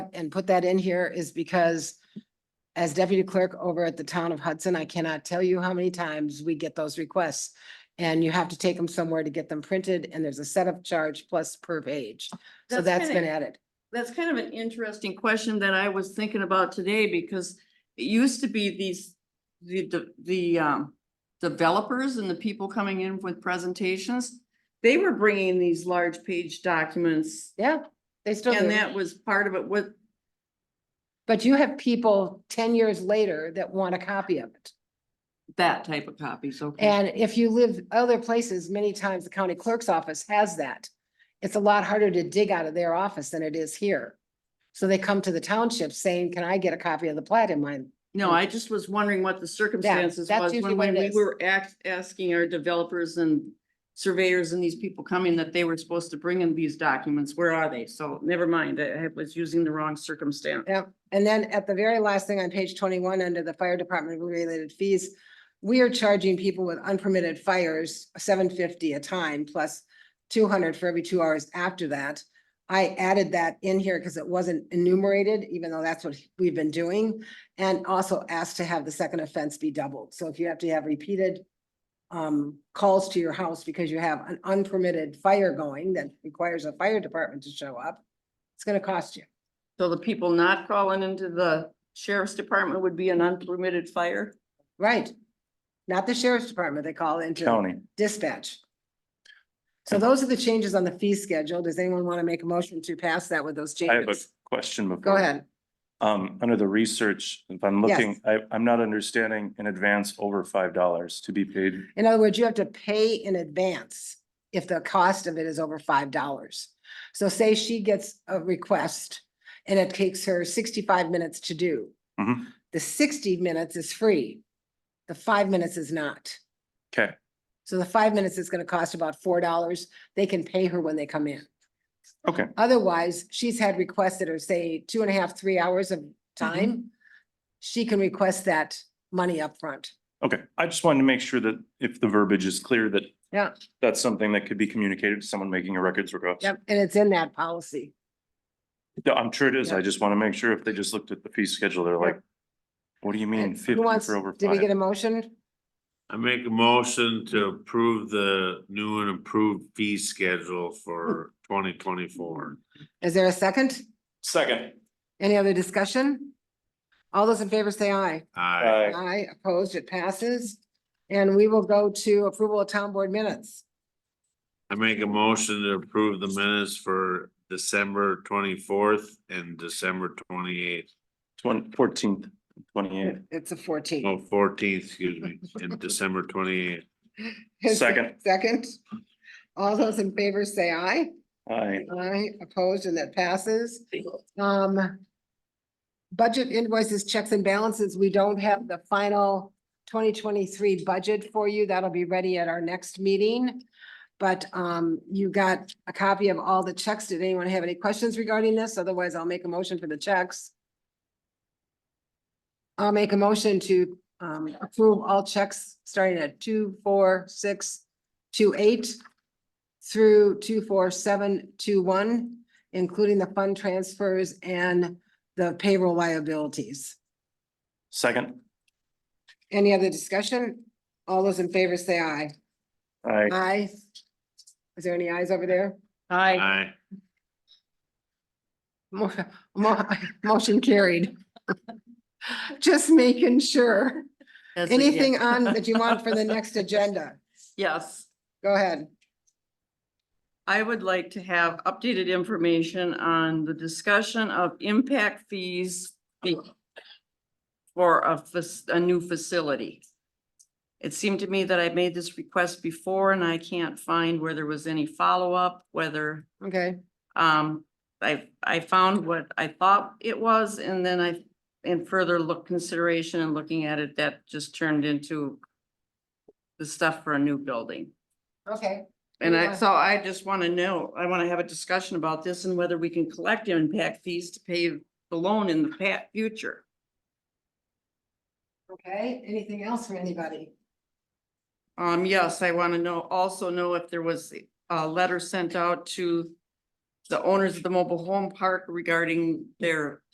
and put that in here is because as deputy clerk over at the town of Hudson, I cannot tell you how many times we get those requests. And you have to take them somewhere to get them printed and there's a setup charge plus per page. So that's kinda- been added. That's kind of an interesting question that I was thinking about today because it used to be these, the, the- the, um, developers and the people coming in with presentations, they were bringing these large page documents Yeah, they still do. and that was part of it. What, But you have people ten years later that want a copy of it. that type of copies, okay? And if you live other places, many times the county clerk's office has that. It's a lot harder to dig out of their office than it is here. So they come to the township saying, can I get a copy of the plat in mine? No, I just was wondering what the circumstances that's was usually when what when it we is. were act, asking our developers and surveyors and these people coming that they were supposed to bring in these documents. Where are they? So never mind, I I was using the wrong circumstance. Yep. And then at the very last thing on page twenty-one, under the fire department related fees, we are charging people with unpermitted fires seven fifty a time plus two hundred for every two hours after that. I added that in here because it wasn't enumerated, even though that's what we've been doing. And also asked to have the second offense be doubled. So if you have to have repeated um, calls to your house because you have an unpermitted fire going that requires a fire department to show up, it's gonna cost you. So the people not calling into the sheriff's department would be an unpermitted fire? Right. Not the sheriff's department, they call into County. dispatch. So those are the changes on the fee schedule. Does anyone want to make a motion to pass that with those I have a changes? question before. Go ahead. Um, under the research, if I'm Yes. looking, I, I'm not understanding in advance over five dollars to be paid. In other words, you have to pay in advance if the cost of it is over five dollars. So say she gets a request and it takes her sixty-five minutes to do. Mhm. The sixty minutes is free. The five minutes is not. Okay, So the five minutes is gonna cost about four dollars. They can pay her when they come in. Okay. Otherwise, she's had requests that are say two and a half, three hours of time. She can request that money upfront. okay. I just wanted to make sure that if the verbiage is clear that Yeah. that's something that could be communicated to someone making a records request. Yep, and it's in that policy. Yeah, I'm sure it is. Yep. I just want to make sure if they just looked at the fee schedule, they're like, what do you mean And who fifty wants- for over Did we get five? a motion? I make a motion to approve the new and improved fee schedule for twenty twenty-four. Is there a second? Second. Any other discussion? All those in favor say aye. I, Uh, Aye, opposed, it passes. And we will go to approval of town board minutes. I make a motion to approve the minutes for December twenty-fourth and December twenty-eighth, twenty, fourteenth, twenty-eighth. It's a fourteen. oh, fourteenth, excuse me, and December twenty-eighth. Is there a Second. Second. All those in favor say aye. Aye. Aye, opposed, and that passes. Um. Budget invoices, checks and balances. We don't have the final twenty twenty-three budget for you. That'll be ready at our next meeting. But um, you got a copy of all the checks. Did anyone have any questions regarding this? Otherwise, I'll make a motion for the checks. I'll make a motion to um approve all checks starting at two, four, six, two, eight through two, four, seven, two, one, including the fund transfers and the payroll liabilities. Second. Any other discussion? All those in favor say aye. Aye. Aye. Is there any ayes over there? Aye. I, Mo- mo- Motion carried. Just making sure. Anything on that you want for the next agenda? Yes, Go ahead. I would like to have updated information on the discussion of impact fees be- for a, fac- a new facility. It seemed to me that I made this request before and I can't find where there was any follow-up, whether Okay, Um, I, I found what I thought it was and then I, in further look consideration and looking at it, that just turned into the stuff for a new building. okay. And I, Yeah. so I just want to know, I want to have a discussion about this and whether we can collect impact fees to pay the loan in the pa- future. Okay, anything else from anybody? Um, yes, I want to know, also know if there was a letter sent out to the owners of the mobile home park regarding their